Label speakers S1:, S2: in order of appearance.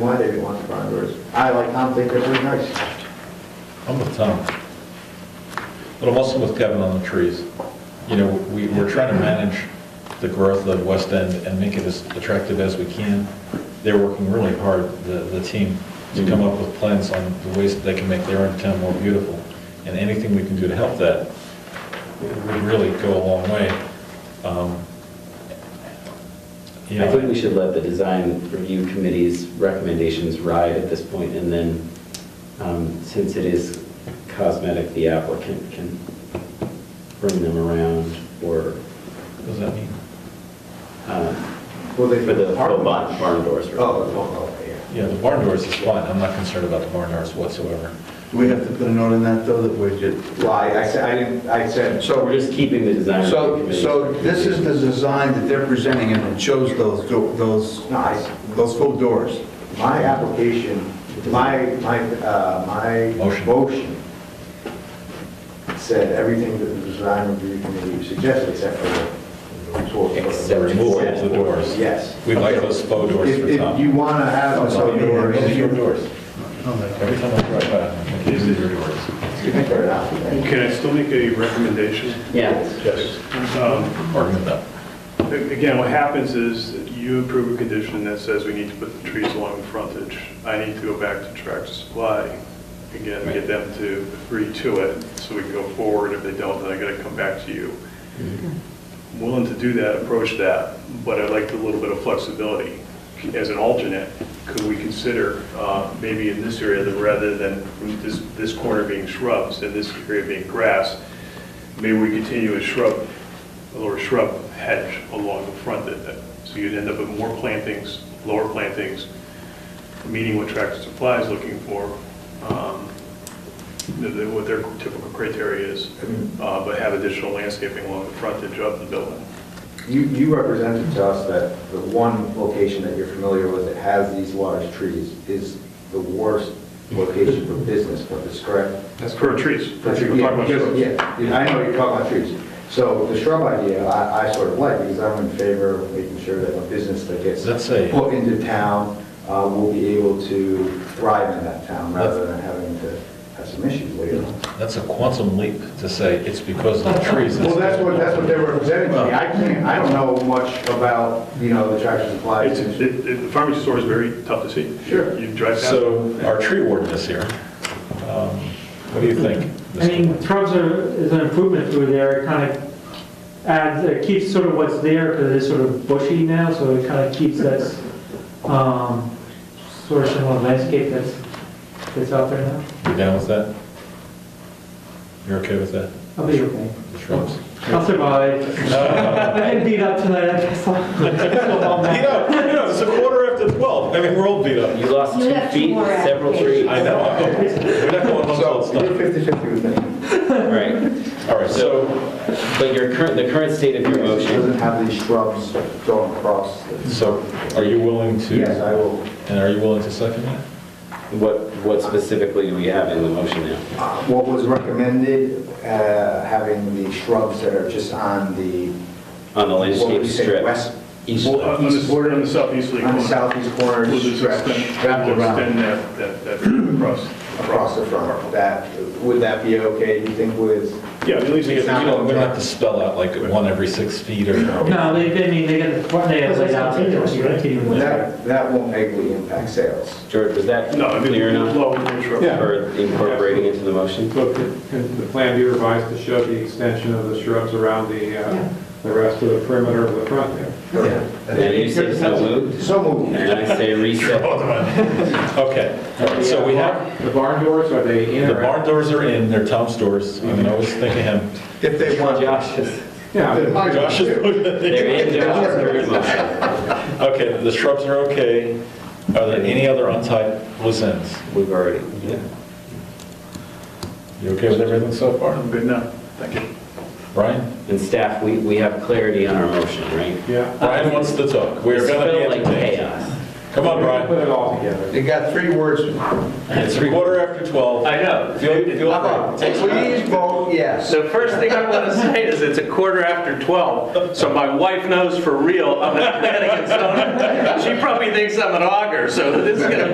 S1: Why they want the barn doors? I like Tom, think they're pretty nice.
S2: I'm with Tom. But I'm also with Kevin on the trees. You know, we, we're trying to manage the growth of West End and make it as attractive as we can. They're working really hard, the, the team,
S1: Mm-hmm.
S2: to come up with plans on the ways that they can make their own town more beautiful. And anything we can do to help that would really go a long way. Um, You
S3: I think
S2: know,
S3: we should let the design review committee's recommendations ride at this point, and then, um, since it is cosmetic, the applicant can bring them around or,
S2: what does that mean?
S3: um,
S1: Well,
S3: for
S1: they
S3: the full barn barn doors.
S1: Oh, oh, oh, yeah.
S2: Yeah, the barn doors is fine. I'm not concerned about the barn doors whatsoever.
S4: Do we have to put a note in that, though, that we're just...
S1: Why, I said, I didn't, I said,
S4: So
S3: We're just keeping the design review
S4: So,
S3: committee.
S4: so this is the design that they're presenting, and it shows those, do- those,
S1: no, I,
S4: those full doors.
S1: my application, my, my, uh, my
S2: Motion.
S1: motion said everything that the design review committee suggested except for the tools.
S2: The
S3: Except-
S2: removal of the doors.
S1: Yes.
S2: We like those faux doors
S1: If,
S2: for Oh,
S1: if you
S2: Tom.
S1: want to have a sub door,
S2: Those are your
S1: you
S2: doors. Every time I drive by, I'm like, these are your doors.
S1: can put it out.
S5: Can I still make a recommendation?
S3: Yeah,
S1: Yes.
S5: Um,
S2: Argument though.
S5: Again, what happens is you approve a condition that says we need to put the trees along the frontage. I need to go back to Tractor Supply, again, get them to agree to it, so we can go forward. If they don't, then I gotta come back to you. I'm Willing to do that, approach that, but I'd like a little bit of flexibility. As an alternate, could we consider, uh, maybe in this area, that rather than from this, this corner being shrubs and this area being grass, maybe we continue a shrub, a lower shrub hedge along the front of that. So you'd end up with more plantings, lower plantings, meeting what Tractor Supply is looking for, um, the- the- what their typical criteria is,
S1: Mm-hmm.
S5: uh, but have additional landscaping along the frontage of the building.
S1: You, you represented to us that the one location that you're familiar with that has these large trees is the worst location for business, but this correct?
S5: That's for trees.
S1: For tree-
S5: We're talking about
S1: yeah,
S5: shrubs.
S1: Yeah, yeah, I know you're talking about trees. So the shrub idea, I, I sort of like, because I'm in favor of making sure that a business that gets
S2: Let's say-
S1: put into town uh, will be able to thrive in that town rather than having to have some issues later on.
S2: That's a quantum leap to say it's because of the trees.
S1: Well, that's what, that's what they were presenting to me. I can't, I don't know much about, you know, the Tractor Supply.
S5: It's, it- it- the farmer's store is very tough to see.
S1: Sure.
S5: You drive past. it.
S2: So our tree warden is here. Um, What do you think?
S6: I mean,
S2: Mr.
S6: shrubs are, is an improvement through there, it kind of adds, it keeps sort of what's there, because it is sort of bushy now, so it kind of keeps that, um, sort of similar landscape that's, that's out there now.
S2: You down with that? You're okay with that?
S6: I'll be okay.
S2: The shrubs?
S6: I'll survive. I didn't beat up tonight, I guess.
S2: You know, you know, it's a quarter after 12. I mean, we're all beat up.
S3: you lost
S7: You
S3: two
S7: have two
S3: feet,
S7: more
S3: several trees.
S7: applications.
S2: I know. We're not going on all
S1: So
S2: stuff.
S1: you're 50/50 with me.
S3: Right,
S2: All right, so
S3: but your current, the current state of your
S1: It
S3: motion,
S1: doesn't have these shrubs going across. the-
S2: So are you willing to?
S1: Yes, I will.
S2: And are you willing to second that?
S3: what, what specifically do we have in the motion now?
S1: Uh, What was recommended, uh, having the shrubs that are just on the, what
S3: On the
S1: would
S3: landscape
S1: you
S3: strip?
S1: say, west,
S3: East-
S5: Well, on the border, on the southeasterly
S1: on
S5: corner.
S1: the southeast corner
S5: We'll just
S1: stretch
S5: extend,
S1: wrapped
S5: we'll extend
S1: around
S5: that, that, that across.
S1: across the front. That, would that be okay, you think, with?
S5: Yeah, at least
S2: We
S5: we get the-
S2: don't, we don't have to spell out like one every six feet or.
S6: No, they, they mean, they got, the- they have laid out.
S1: That, that won't negatively impact sales.
S3: George, was that
S5: No, I mean,
S3: clear enough
S5: lower than shrub.
S3: for incorporating into the motion?
S8: So could could the plan be revised to show the extension of the shrubs around the,
S7: Yeah.
S8: uh, the rest of the perimeter of the front there?
S3: And you say so moved,
S1: So moved.
S3: and I say reset.
S2: Okay, all right, so we have,
S8: The barn doors, are they in
S2: the
S8: or out?
S2: barn doors are in, they're Tom's doors. I mean, I was thinking him.
S4: If they want,
S3: Josh's,
S8: Yeah,
S2: Josh is looking at
S3: they're
S2: me.
S3: in Josh's current motion.
S2: Okay, the shrubs are okay. Are there any other untied loose ends?
S3: We've already,
S2: You okay with everything so far?
S5: I'm good now, thank you.
S2: Brian?
S3: and staff, we, we have clarity on our motion, right?
S8: yeah.
S2: Brian wants to talk. We're
S3: It's
S2: gonna be
S3: spelled like
S2: entertained.
S3: chaos.
S2: Come on,
S8: Put
S2: Brian.
S8: it all together.
S4: they got three words.
S2: It's quarter after 12.
S9: I know.
S2: Feel, feel free. Take-
S4: Please vote yes.
S9: The first thing I want to say is it's a quarter after 12, so my wife knows for real I'm a Connecticut stoner. She probably thinks I'm an auger, so this is going to